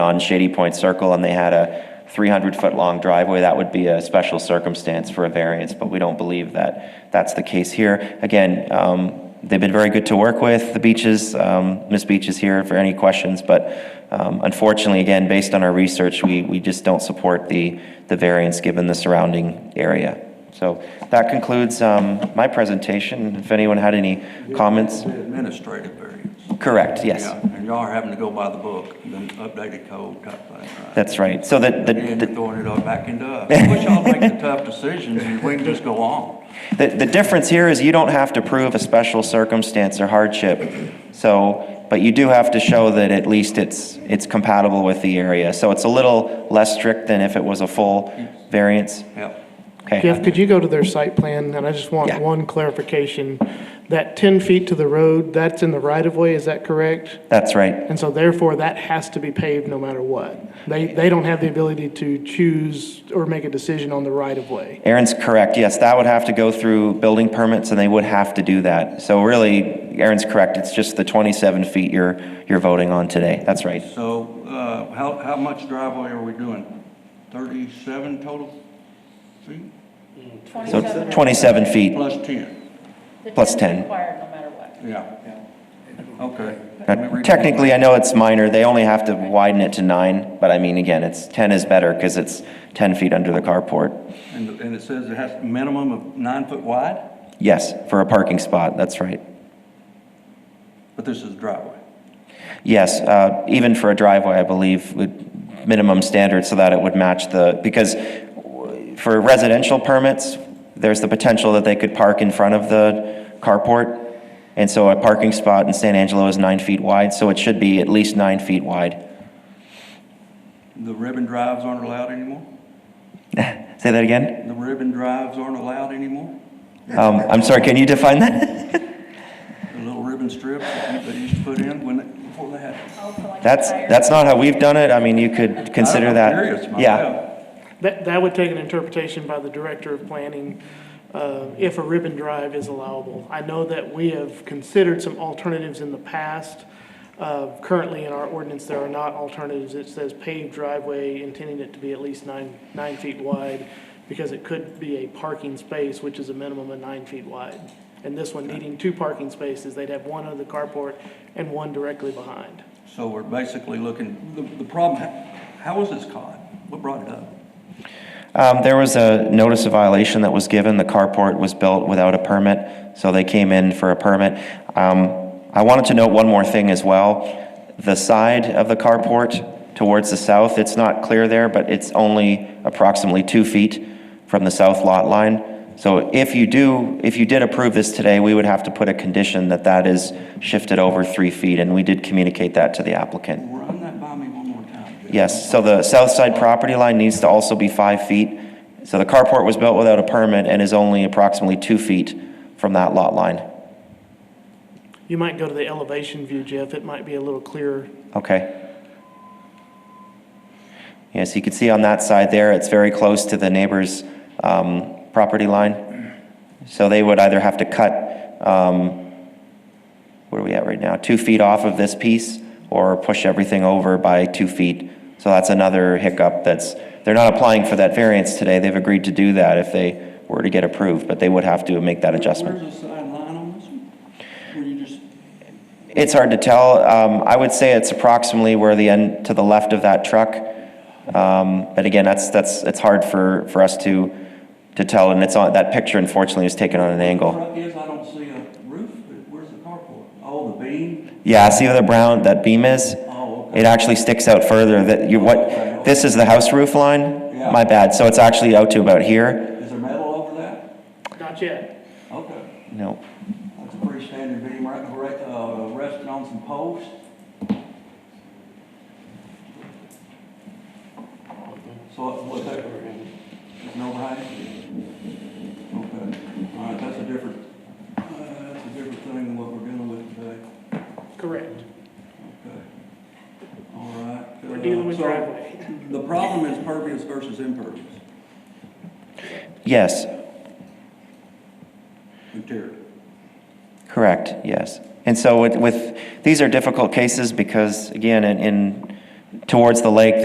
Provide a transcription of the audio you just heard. on Shady Point Circle and they had a 300-foot-long driveway, that would be a special circumstance for a variance, but we don't believe that that's the case here. Again, um, they've been very good to work with, the Beaches, um, Ms. Beach is here for any questions, but um, unfortunately, again, based on our research, we, we just don't support the, the variance given the surrounding area. So that concludes um, my presentation. If anyone had any comments? The Administrative variance. Correct, yes. Yeah, And y'all are having to go by the book, the updated code type thing, right? That's right. So that, the, And the- you're throwing it all back into us. I wish y'all make the tough decisions and we can just go on. The, the difference here is you don't have to prove a special circumstance or hardship. So, but you do have to show that at least it's, it's compatible with the area. So it's a little less strict than if it was a full variance. Yep. Okay. Jeff, could you go to their site plan? And I just Yeah. want one clarification. That 10 feet to the road, that's in the right-of-way, is that correct? That's right. And so therefore, that has to be paved no matter what. They, they don't have the ability to choose or make a decision on the right-of-way. Aaron's correct. Yes, that would have to go through building permits and they would have to do that. So really, Aaron's correct. It's just the 27 feet you're, you're voting on today. That's right. So, uh, how, how much driveway are we doing? Thirty-seven total feet? So 27 feet Plus ten, plus 10. Required no matter what. yeah. Okay. Let me Uh, read Technically, I know it's minor, they only have to widen it to nine, but I mean, again, it's, 10 is better because it's 10 feet under the carport. it. And, and it says it has a minimum of nine foot wide, Yes, for a parking spot, that's right. but this is driveway. Yes, uh, even for a driveway, I believe, would minimum standard so that it would match the, because for residential permits, there's the potential that they could park in front of the carport. And so a parking spot in San Angelo is nine feet wide, so it should be at least nine feet wide. The ribbon drives aren't allowed anymore? Say that again? The ribbon drives aren't allowed anymore? Um, I'm sorry, can you define that? The little ribbon strips that you- they used to put in when, it- before they had. Also, like That's, tires. that's not how we've done it. I mean, you could consider I'm that. curious Yeah, myself. That, that would take an interpretation by the Director of Planning uh, if a ribbon drive is allowable. I know that we have considered some alternatives in the past. Uh, Currently, in our ordinance, there are not alternatives. It says paved driveway, intending it to be at least nine, nine feet wide, because it could be a parking space, which is a minimum of nine feet wide. And this one needing two parking spaces, they'd have one under the carport and one directly behind. So we're basically looking, the, the problem, how was this caught? What brought it up? Um, there was a notice of violation that was given. The carport was built without a permit, so they came in for a permit. Um, I wanted to note one more thing as well. The side of the carport towards the south, it's not clear there, but it's only approximately two feet from the south lot line. So if you do, if you did approve this today, we would have to put a condition that that is shifted over three feet, and we did communicate that to the applicant. Run that by me one more time. Jeff. Yes, so the south side property line needs to also be five feet. So the carport was built without a permit and is only approximately two feet from that lot line. You might go to the elevation view, Jeff. It might be a little clearer. Okay. Yes, you can see on that side there, it's very close to the neighbor's um, property line. So they would either have to cut, um, where are we at right now? Two feet off of this piece or push everything over by two feet. So that's another hiccup that's, they're not applying for that variance today. They've agreed to do that if they were to get approved, but they would have to make that adjustment. Where's the sideline on this one? Where you just, It's hard to tell. Um, I would say it's approximately where the end, to the left of that truck. Um, but again, that's, that's, it's hard for, for us to, to tell. And it's on, that picture unfortunately is taken on an angle. truck is, I don't see a roof, but where's the carport? Oh, the beam? Yeah, see where the brown, that beam is? Oh, okay. It actually sticks out further that you, what, this is the house roof line? Yeah. My bad. So it's actually out to about here? Is there metal over that? Not yet. Okay, No. that's a pretty standard beam, right, right, uh, resting on some posts. So what's that? No hiding? Okay, all right, that's a different, uh, that's a different thing than what we're dealing with today. Correct. Okay. All right. uh, We're dealing with So, driveway. The problem is pervious versus impervious Yes, material. Correct, yes. And so with- with, these are difficult cases because, again, in- in towards the lake,